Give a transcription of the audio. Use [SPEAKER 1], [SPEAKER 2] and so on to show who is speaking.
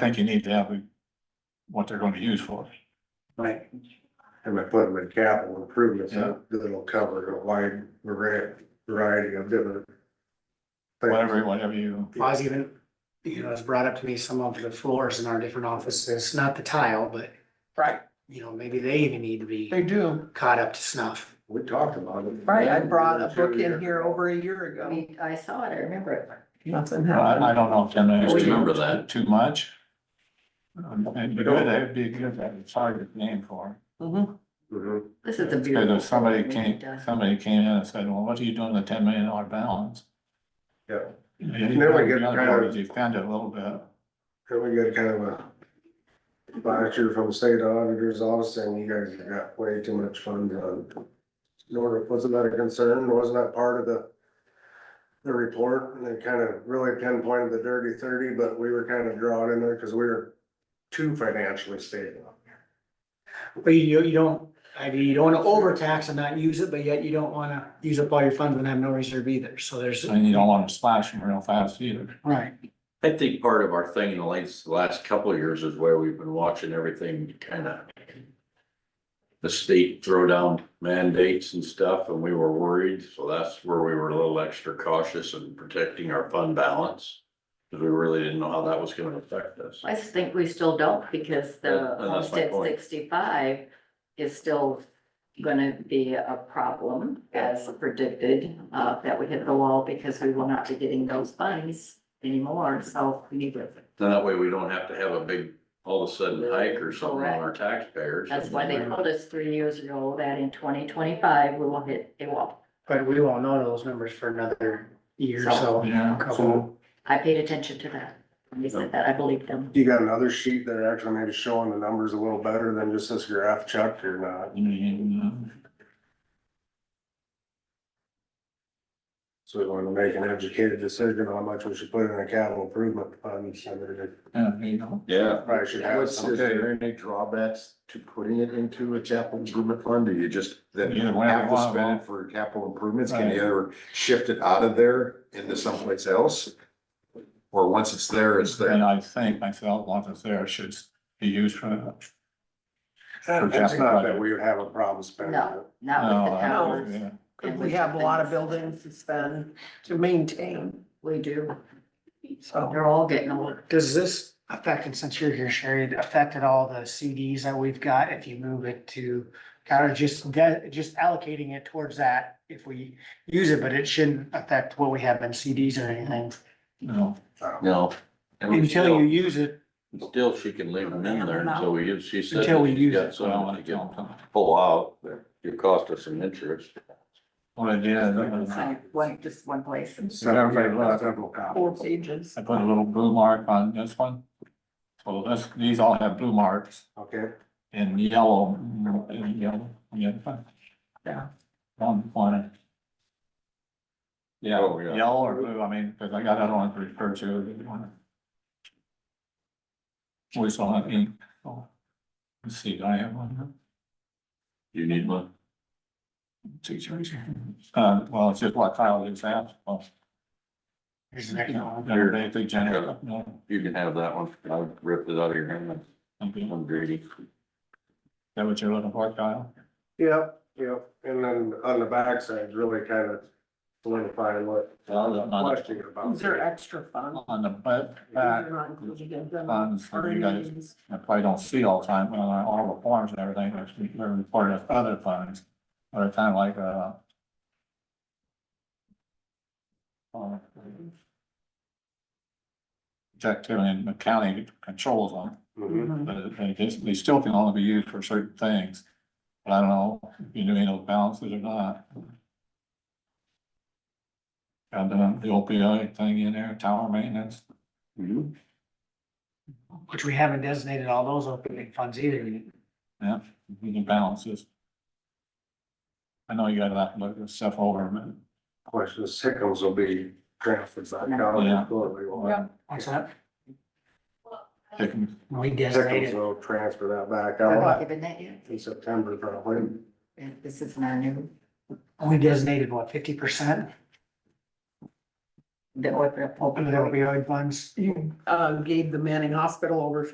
[SPEAKER 1] think you need to have what they're gonna use for.
[SPEAKER 2] Right.
[SPEAKER 3] And I put them in capital improvements, so that'll cover a wide vari- variety of different. things.
[SPEAKER 1] Whatever, whatever you,
[SPEAKER 2] Paws even, you know, it's brought up to me some of the floors in our different offices, not the tile, but,
[SPEAKER 4] Right,
[SPEAKER 2] you know, maybe they even need to be
[SPEAKER 4] they do.
[SPEAKER 2] caught up to snuff.
[SPEAKER 3] We talked about it.
[SPEAKER 4] Right, I brought a book in here over a year
[SPEAKER 5] I
[SPEAKER 4] ago.
[SPEAKER 5] mean, I saw it, I remember it.
[SPEAKER 4] Nothing
[SPEAKER 1] I, I
[SPEAKER 4] happened.
[SPEAKER 1] don't know if them is
[SPEAKER 6] Just remember
[SPEAKER 1] too,
[SPEAKER 6] that.
[SPEAKER 1] too much. Um, It'd be good, it'd be good, to have a target name for.
[SPEAKER 5] Mm-hmm.
[SPEAKER 4] Mhm.
[SPEAKER 3] Mhm.
[SPEAKER 5] This is a
[SPEAKER 1] it. Cause
[SPEAKER 5] beautiful.
[SPEAKER 1] if somebody
[SPEAKER 5] thing
[SPEAKER 1] came,
[SPEAKER 5] we've done.
[SPEAKER 1] somebody came in and said, well, what are you doing with the ten million dollar balance?
[SPEAKER 3] Yeah,
[SPEAKER 1] You
[SPEAKER 3] Mm-hmm. Then we get
[SPEAKER 1] gotta-
[SPEAKER 3] kind of-
[SPEAKER 1] you Defend it a little bit.
[SPEAKER 3] then we got kind of a voucher from the state auditor's office saying you guys have got way too much funds on. Nor wasn't that a concern, wasn't that part of the, the report, and they kind of really pinpointed the dirty thirty, but we were kind of drawn in there because we were too financially stable.
[SPEAKER 2] But you, you don't, I mean, you don't wanna overtax and not use it, but yet you don't wanna use up all your funds and have no reserve either, so there's,
[SPEAKER 1] And you don't wanna splash them real fast either.
[SPEAKER 2] right.
[SPEAKER 6] I think part of our thing in the last, the last couple of years is where we've been watching everything kind of the state throw down mandates and stuff, and we were worried, so that's where we were a little extra cautious in protecting our fund balance. Because we really didn't know how that was gonna affect us.
[SPEAKER 5] I just think we still don't because the
[SPEAKER 6] And- and that's my
[SPEAKER 5] homestead
[SPEAKER 6] point.
[SPEAKER 5] sixty-five is still gonna be a problem as predicted, uh, that we hit the wall because we will not be getting those funds anymore, so we need to.
[SPEAKER 6] Then that way we don't have to have a big, all of a sudden hike or something on our taxpayers.
[SPEAKER 5] That's why they told us three years ago that in twenty twenty-five, we will hit a wall.
[SPEAKER 2] But we won't know those numbers for another year or so.
[SPEAKER 1] Yeah.
[SPEAKER 2] Couple.
[SPEAKER 5] I paid attention to that. When they said that, I believed them.
[SPEAKER 3] You got another sheet that actually maybe showing the numbers a little better than just this graph chuck or not,
[SPEAKER 1] And,
[SPEAKER 3] so we want to make an educated decision on how much we should put in a capital improvement fund. so that it
[SPEAKER 1] uh, you know,
[SPEAKER 6] Yeah,
[SPEAKER 3] Probably should have
[SPEAKER 7] What's,
[SPEAKER 3] some.
[SPEAKER 7] is there any drawbacks to putting it into a capital improvement fund? Do you just, then
[SPEAKER 1] Either way,
[SPEAKER 7] have
[SPEAKER 1] well,
[SPEAKER 7] to spend
[SPEAKER 1] well.
[SPEAKER 7] it for capital improvements? Can you
[SPEAKER 1] Right.
[SPEAKER 7] ever shift it out of there into someplace else? Or once it's there, it's
[SPEAKER 1] and
[SPEAKER 7] there?
[SPEAKER 1] I think myself, once it's there, it should be used for.
[SPEAKER 3] It's not that we would have a problem spending it.
[SPEAKER 5] No, not with the
[SPEAKER 1] No, I-
[SPEAKER 5] towers.
[SPEAKER 1] yeah.
[SPEAKER 5] And
[SPEAKER 4] We have a lot of buildings to spend, to maintain,
[SPEAKER 5] We do.
[SPEAKER 4] so.
[SPEAKER 5] They're all getting old.
[SPEAKER 2] Does this affect, and since you're here, Sherry, affected all the CDs that we've got if you move it to kind of just that, just allocating it towards that if we use it, but it shouldn't affect what we have in CDs or anything.
[SPEAKER 1] No,
[SPEAKER 6] no. And we
[SPEAKER 2] Until you use it,
[SPEAKER 6] Still, she can leave them in there until we use, she said.
[SPEAKER 2] Until we
[SPEAKER 6] that she's
[SPEAKER 2] use
[SPEAKER 6] got
[SPEAKER 2] it.
[SPEAKER 6] so
[SPEAKER 1] well,
[SPEAKER 6] much
[SPEAKER 1] I
[SPEAKER 6] to get
[SPEAKER 1] don't know.
[SPEAKER 6] pull out, but it cost us some interest.
[SPEAKER 1] What I did, uh,
[SPEAKER 5] So, like, just one place.
[SPEAKER 1] So everybody loves
[SPEAKER 4] Four pages.
[SPEAKER 1] I put a little blue mark on this one. So this, these all have blue marks
[SPEAKER 3] Okay,
[SPEAKER 1] in yellow, in yellow, yeah.
[SPEAKER 4] Yeah.
[SPEAKER 1] One corner. Yeah,
[SPEAKER 6] Oh, yeah.
[SPEAKER 1] yellow or blue, I mean, because I got other ones to refer to. if you wanna. We still have ink. so. Let's see, do I have one?
[SPEAKER 6] You need one?
[SPEAKER 1] Uh, well, it's just what Kyle is asked. well,
[SPEAKER 2] here's the next one.
[SPEAKER 1] They're basically general, no,
[SPEAKER 6] You can have that one. I ripped it out of your hand.
[SPEAKER 1] okay. Is
[SPEAKER 6] I'm greedy.
[SPEAKER 1] that what you're looking for, Kyle?
[SPEAKER 3] yep, yep, and then on the backside, really kind of solidifying what
[SPEAKER 1] On the-
[SPEAKER 3] question about.
[SPEAKER 4] Those are extra fun.
[SPEAKER 1] on the back,
[SPEAKER 4] Those
[SPEAKER 1] back,
[SPEAKER 4] are not included in them.
[SPEAKER 1] funds for you guys,
[SPEAKER 4] Earnings.
[SPEAKER 1] I probably don't see all the time, well, on all the forms and everything, that's they're reported as other funds, or kind of like, uh. uh, Jack Taylor and the county controls them,
[SPEAKER 3] Mhm.
[SPEAKER 1] but they just, they still can only be used for certain things. But I don't know if you knew any of those balances or not. Got the the opioid thing in there, tower maintenance,
[SPEAKER 2] Which we haven't designated all those opening funds either.
[SPEAKER 1] you can balance this. I know you gotta have to look this stuff over a minute.
[SPEAKER 3] Questions, sickles will be transferred back out.
[SPEAKER 1] Yeah.
[SPEAKER 3] Yeah.
[SPEAKER 2] What's that?
[SPEAKER 1] They can-
[SPEAKER 2] We
[SPEAKER 3] Sickles
[SPEAKER 2] designated.
[SPEAKER 3] will transfer that back
[SPEAKER 5] We're not
[SPEAKER 3] out
[SPEAKER 5] given that yet.
[SPEAKER 3] in September probably.
[SPEAKER 5] And This is not new.
[SPEAKER 2] We designated what, fifty percent?
[SPEAKER 5] the opioid.
[SPEAKER 2] open it up, opioid funds.
[SPEAKER 4] uh, gave the Manning Hospital over